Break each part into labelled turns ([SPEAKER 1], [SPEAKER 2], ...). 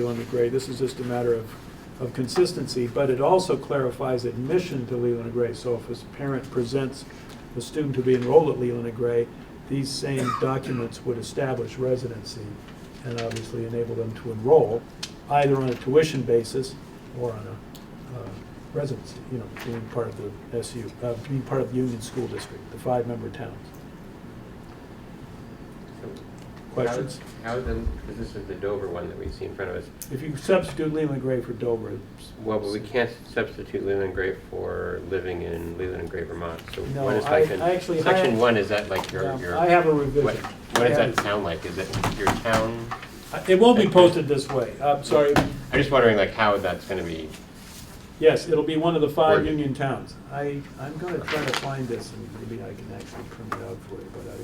[SPEAKER 1] Leland and Gray. This is just a matter of, of consistency, but it also clarifies admission to Leland and Gray. So if a parent presents a student to be enrolled at Leland and Gray, these same documents would establish residency and obviously enable them to enroll, either on a tuition basis or on a uh, residency, you know, being part of the SU, uh, being part of the Union School District, the five-member towns. Questions?
[SPEAKER 2] How how then, because this is the Dover one that we see in front of us.
[SPEAKER 1] If you substitute Leland Gray for Dover, it's-
[SPEAKER 2] Well, but we can't substitute Leland Gray for living in Leland and Gray, Vermont, so
[SPEAKER 1] No,
[SPEAKER 2] what is
[SPEAKER 1] I-
[SPEAKER 2] section?
[SPEAKER 1] I actually
[SPEAKER 2] Section
[SPEAKER 1] have-
[SPEAKER 2] one, is that like your,
[SPEAKER 1] Um,
[SPEAKER 2] your?
[SPEAKER 1] I have a
[SPEAKER 2] What,
[SPEAKER 1] revision.
[SPEAKER 2] what does
[SPEAKER 1] I have-
[SPEAKER 2] that sound like? Is it your town?
[SPEAKER 1] It won't be posted this way, I'm sorry.
[SPEAKER 2] I'm just wondering like how that's gonna be,
[SPEAKER 1] Yes, it'll be one of the five
[SPEAKER 2] Oregon.
[SPEAKER 1] Union towns. I, I'm gonna try to find this, and maybe I can actually print it out for you, but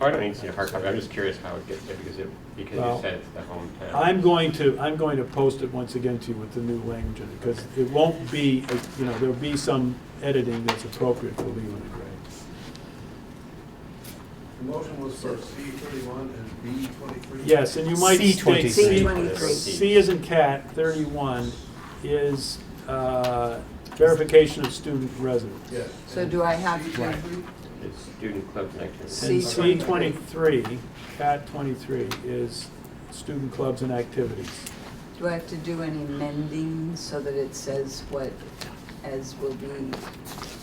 [SPEAKER 2] oh, I don't need to see a hard copy, I'm just curious how it gets there, because it, because
[SPEAKER 1] Well,
[SPEAKER 2] you said it's the hometown.
[SPEAKER 1] I, I'm going to, I'm going to post it once again to you with the new language, in it because it won't be, you know, there'll be some editing that's appropriate for Leland and Gray.
[SPEAKER 3] The motion was for C thirty-one and B twenty-three?
[SPEAKER 1] Yes, and you might
[SPEAKER 4] C
[SPEAKER 1] state.
[SPEAKER 4] 23.
[SPEAKER 5] C 23.
[SPEAKER 1] C is in cat, thirty-one, is, uh, verification of student residence.
[SPEAKER 3] Yes.
[SPEAKER 5] So do I have-
[SPEAKER 3] C twenty-three?
[SPEAKER 2] It's student club connectivity.
[SPEAKER 1] And C
[SPEAKER 5] C
[SPEAKER 1] twenty-three, cat twenty-three is student clubs and activities.
[SPEAKER 5] Do I have to do any mending so that it says what as will be,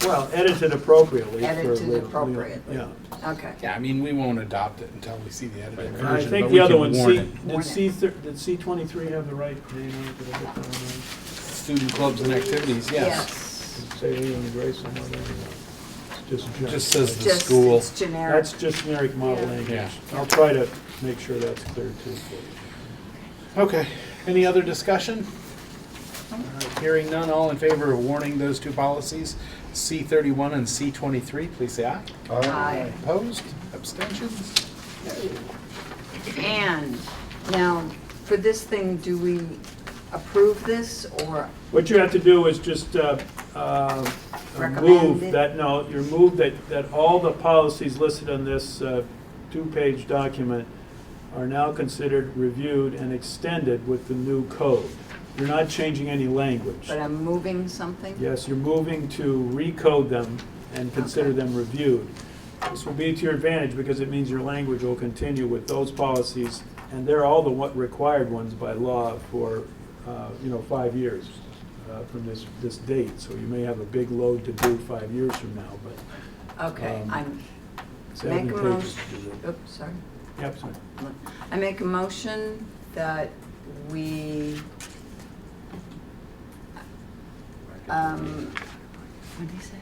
[SPEAKER 1] Well, edited appropriately. for
[SPEAKER 5] Edited
[SPEAKER 1] Leo- Leo-
[SPEAKER 5] appropriately.
[SPEAKER 1] Yeah.
[SPEAKER 5] okay.
[SPEAKER 4] Yeah, I mean, we won't adopt it until we see the edited
[SPEAKER 2] Right.
[SPEAKER 1] And I
[SPEAKER 4] version,
[SPEAKER 1] think
[SPEAKER 4] but
[SPEAKER 1] the
[SPEAKER 4] we
[SPEAKER 1] other one,
[SPEAKER 4] can warn
[SPEAKER 1] C,
[SPEAKER 4] it.
[SPEAKER 5] Warn
[SPEAKER 1] did
[SPEAKER 5] it.
[SPEAKER 1] C, thir- did C twenty-three have the right name? on it? Did I get that one
[SPEAKER 4] Student clubs and activities, yes.
[SPEAKER 5] Yes.
[SPEAKER 1] right? Say Leland and Gray somewhere there? It's just. generic.
[SPEAKER 4] Just says the
[SPEAKER 5] Just,
[SPEAKER 4] school.
[SPEAKER 5] it's generic.
[SPEAKER 1] That's just generic model language.
[SPEAKER 4] Yeah.
[SPEAKER 1] I'll try to make sure that's clear too. for you.
[SPEAKER 4] Okay, any other discussion? All right, Hearing none, all in favor of warning those two policies, C thirty-one and C twenty-three, please say aye.
[SPEAKER 5] Aye.
[SPEAKER 4] Opposed, abstentions?
[SPEAKER 5] And now, for this thing, do we approve this or,
[SPEAKER 1] What you have to do is just uh, uh, move
[SPEAKER 5] Recommend it.
[SPEAKER 1] that, no, your move that, that all the policies listed on this uh, two-page document are now considered reviewed and extended with the new code. You're not changing any language.
[SPEAKER 5] but I'm moving something?
[SPEAKER 1] Yes, you're moving to recode them and consider
[SPEAKER 5] Okay.
[SPEAKER 1] them reviewed. This will be to your advantage because it means your language will continue with those policies, and they're all the what required ones by law for, uh, you know, five years uh, from this, this date. So you may have a big load to do five years from now, but
[SPEAKER 5] Okay,
[SPEAKER 1] Um,
[SPEAKER 5] I'm,
[SPEAKER 1] it's
[SPEAKER 5] Make a
[SPEAKER 1] advantageous to do that.
[SPEAKER 5] oops, sorry.
[SPEAKER 1] Yep, sorry.
[SPEAKER 5] I make a motion that we, um, what did he say?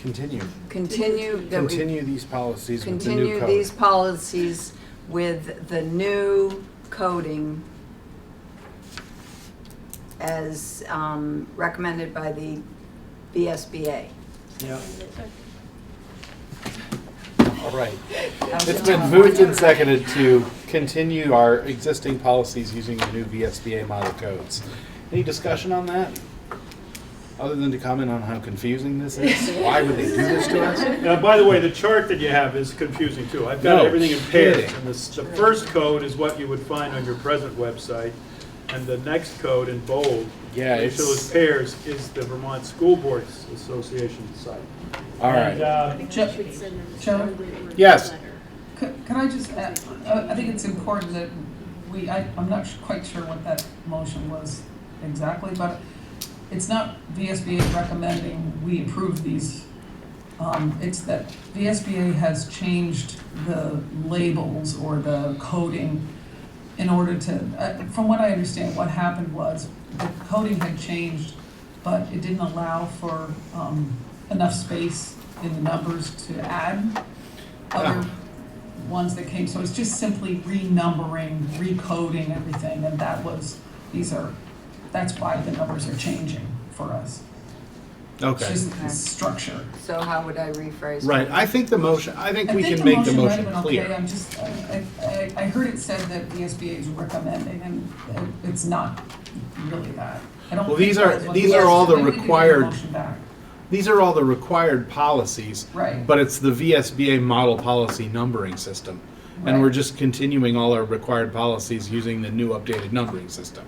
[SPEAKER 4] Continue,
[SPEAKER 5] Continue, that we
[SPEAKER 4] continue these policies with the new
[SPEAKER 5] continue
[SPEAKER 4] code.
[SPEAKER 5] these policies with the new coding as um, recommended by the BSBA.
[SPEAKER 1] Yeah.
[SPEAKER 4] All right, it's been moved and seconded to continue our existing policies using the new VSBA model codes. Any discussion on that? Other than to comment on how confusing this is? Why would they do this to us?
[SPEAKER 1] Now, by the way, the chart that you have is confusing too. I've
[SPEAKER 4] No
[SPEAKER 1] got everything in pairs.
[SPEAKER 4] kidding.
[SPEAKER 1] And this, the first code is what you would find on your present website, and the next code in bold,
[SPEAKER 4] Yeah,
[SPEAKER 1] which shows
[SPEAKER 4] it's-
[SPEAKER 1] pairs, is the Vermont School Boards Association site.
[SPEAKER 4] All
[SPEAKER 1] And,
[SPEAKER 4] right,
[SPEAKER 1] uh,
[SPEAKER 6] Chairman?
[SPEAKER 4] Yes.
[SPEAKER 7] C- Can I just add, I I think it's important that we, I, I'm not su- quite sure what that motion was exactly, but it's not VSBA recommending we approve these. Um, it's that VSBA has changed the labels or the coding in order to, uh, from what I understand, what happened was the coding had changed, but it didn't allow for, um, enough space in the numbers to add other ones that came, so it's just simply renumbering, recoding everything, and that was, these are, that's why the numbers are changing for us. It's
[SPEAKER 4] okay.
[SPEAKER 7] just the structure.
[SPEAKER 5] So how would I rephrase? it?
[SPEAKER 4] Right, I think the motion, I think
[SPEAKER 7] I
[SPEAKER 4] we
[SPEAKER 7] think
[SPEAKER 4] can make the
[SPEAKER 7] might
[SPEAKER 4] motion
[SPEAKER 7] have been Okay,
[SPEAKER 4] clear.
[SPEAKER 7] I'm just, I, I, I heard it said that the SBA is recommending, and it- it's not really that. I don't
[SPEAKER 4] Well,
[SPEAKER 7] think
[SPEAKER 4] these
[SPEAKER 7] that
[SPEAKER 4] are-
[SPEAKER 7] was what
[SPEAKER 4] these
[SPEAKER 7] the
[SPEAKER 4] are all the
[SPEAKER 7] SBA we need to give
[SPEAKER 4] required-
[SPEAKER 7] motion back.
[SPEAKER 4] These are all the required policies.
[SPEAKER 7] Right.
[SPEAKER 4] But it's the VSBA model policy numbering system. And we're
[SPEAKER 7] Right.
[SPEAKER 4] just continuing all our required policies using the new updated numbering system.